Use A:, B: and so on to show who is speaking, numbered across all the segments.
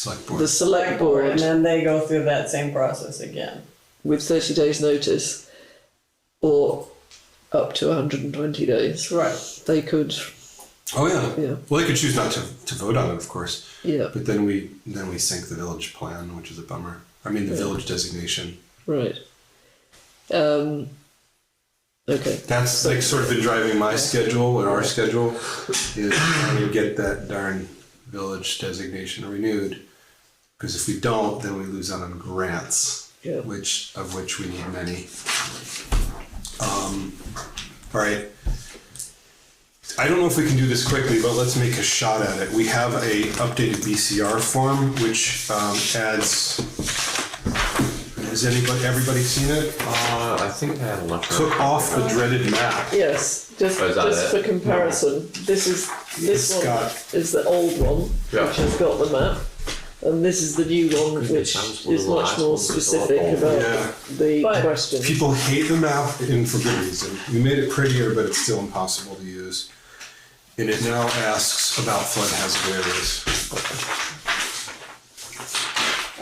A: select
B: the
A: board.
B: select
C: And
B: board
C: then they go through that same process again.
B: with thirty days notice or up to hundred and twenty days.
C: Right.
B: They could,
A: Oh, yeah.
B: Yeah.
A: Well, they could choose not to, to vote on it, of course,
B: yeah,
A: but then we, then we sink the village plan, which is a bummer. I mean, the village designation.
B: right. Um, okay.
A: That's like sort of been driving my schedule and our schedule is trying to get that darn village designation renewed. Because if we don't, then we lose out on grants,
B: Yeah.
A: which of which we need many. Um, all right. I don't know if we can do this quickly, but let's make a shot at it. We have a updated BCR form which um, adds. Has anybody everybody seen it?
D: Uh, I think I had a look.
A: Took off the dreaded map.
B: Yes, just,
D: Oh, is that
B: just
D: it?
B: for comparison, this is,
A: It's
B: this one
A: got-
B: is the old one,
D: Yeah.
B: which has got the map. And this is the new one,
D: Goodness,
B: which
D: that was one of
B: is
D: the
B: much
D: last
B: more
D: ones that got
B: specific
D: old.
A: Yeah.
B: about the
C: But-
B: question.
A: People hate the map, and for good reason. We made it prettier, but it's still impossible to use. And it now asks about flood hazard areas.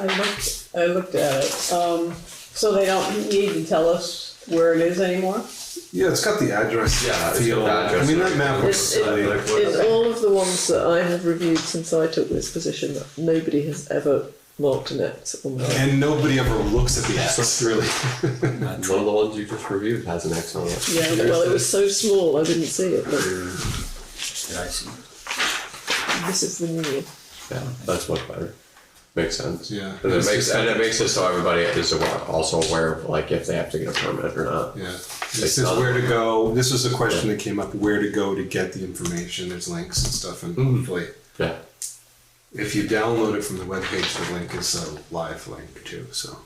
C: I looked, I looked at it. Um, so they don't need to tell us where it is anymore?
A: Yeah, it's got the address.
D: Yeah, it's
A: field.
D: got the address.
A: I mean, that map looks
B: It's- it-
A: silly.
D: uh, Like, what-
B: In all of the ones that I have reviewed since I took this position, nobody has ever marked an X on the map.
A: And nobody ever looks at the X, really.
D: One of the ones you just reviewed has an X on it.
B: Yeah, well, it was so small, I didn't see it, but
E: Yeah, I see.
B: this is the new.
D: Yeah, that's much better. Makes sense.
A: Yeah.
D: And it makes and it makes it so everybody is aware, also aware of like if they have to get a permit or not.
A: Yeah. This is where to go. This was a question that came up, where to go to get the information. There's links and stuff, and
D: Mm-hmm.
A: hopefully,
D: Yeah.
A: if you download it from the webpage, the link is a live link too, so.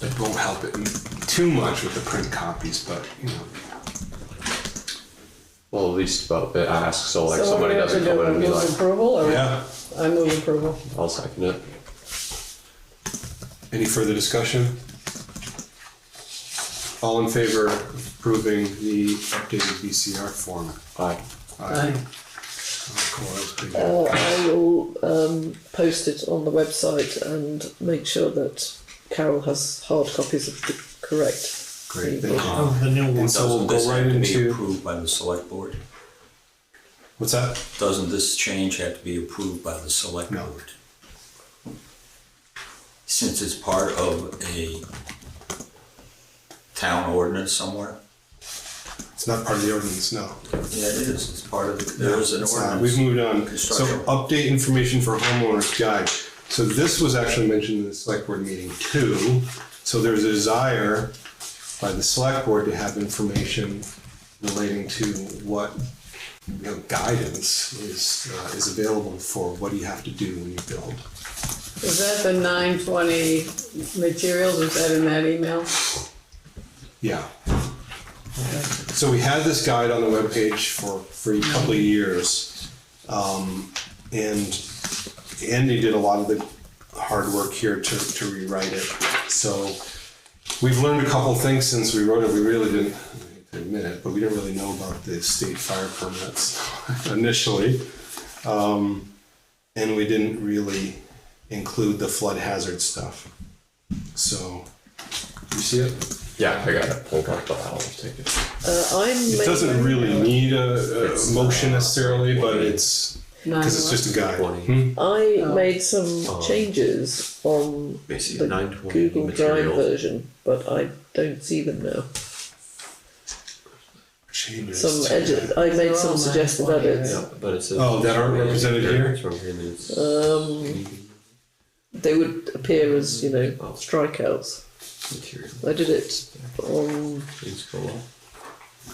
A: It won't help it too much with the print copies, but, you know.
D: Well, at least about it asks so like
C: So
D: somebody
C: we have
D: doesn't
C: to
D: come
C: do
D: in and be
C: move
D: like,
C: Approval or?
A: Yeah.
C: I move approval.
D: I'll second it.
A: Any further discussion? All in favor of approving the updated VCR form?
D: Aye.
A: Aye. Oh, cool, that was pretty good.
B: Uh, I will um, post it on the website and make sure that Carol has hard copies of the correct.
A: Great, thank you.
B: Oh,
E: Oh, the new one,
A: And so we'll
E: doesn't
A: go
E: this
A: right
E: have to be
A: into-
E: approved by the select board?
A: What's that?
E: Doesn't this change have to be approved by the select
A: No.
E: board? Since it's part of a town ordinance somewhere?
A: It's not part of the ordinance, no.
E: Yeah, it is, it's part of, the- there is an
A: It's not. We've
E: ordinance.
A: moved on. So
E: Construction.
A: update information for homeowners guide. So this was actually mentioned in the select board meeting too. So there's a desire by the select board to have information relating to what, you know, guidance is, uh, is available for what do you have to do when you build.
C: Is that the nine twenty materials, is that in that email?
A: Yeah. So we had this guide on the webpage for, for a couple of years. Um, and Andy did a lot of the hard work here to, to rewrite it. So we've learned a couple of things since we wrote it. We really didn't I hate to admit it, but we didn't really know about the state fire permits initially. Um, and we didn't really include the flood hazard stuff. So you see it?
D: Yeah, I got it. Hold on, but I'll take it.
B: Uh, I'm
A: It doesn't really need a, a
D: It's,
A: motion
D: uh,
A: necessarily, but it's,
C: Nine
A: because it's just a guide.
D: Twenty.
A: Hmm?
B: I
C: Oh.
B: made some changes on
D: Basically, nine
B: the
D: twenty
B: Google Drive
D: material.
B: version, but I don't see them now.
A: Changes.
B: Some edit. I
C: They're
B: made
C: all
B: some suggested
C: 920,
B: edits.
D: Yeah, but it says.
A: Oh, that aren't represented here?
D: It's from here and it's-
B: Um, they would appear as you know
D: Oh.
B: strikeouts.
D: Material.
B: I did it on
D: Please go on.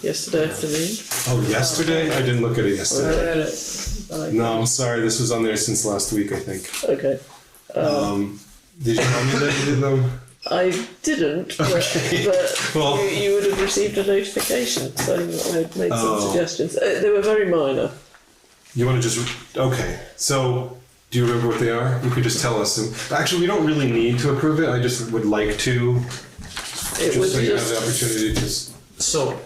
B: yesterday afternoon.
A: Oh, yesterday? I didn't look at it
C: I
A: yesterday.
C: read it, but I-
A: No, I'm sorry, this was on there since last week, I think.
B: Okay.
A: Um, did you tell me that you did them?
B: I didn't, but, but
A: Well-
B: you, you would have received a notification saying that I had made
A: Oh.
B: some suggestions. Uh, they were very minor.
A: You wanna just, okay, so, do you remember what they are? You could just tell us. And- Actually, we don't really need to approve it, I just would like to,
B: It
A: just
B: was
A: so you have the
B: just
A: opportunity to just,
D: So,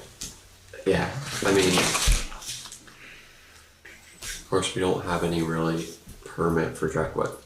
D: yeah, I mean, of course, we don't have any really permit for Drac Wet.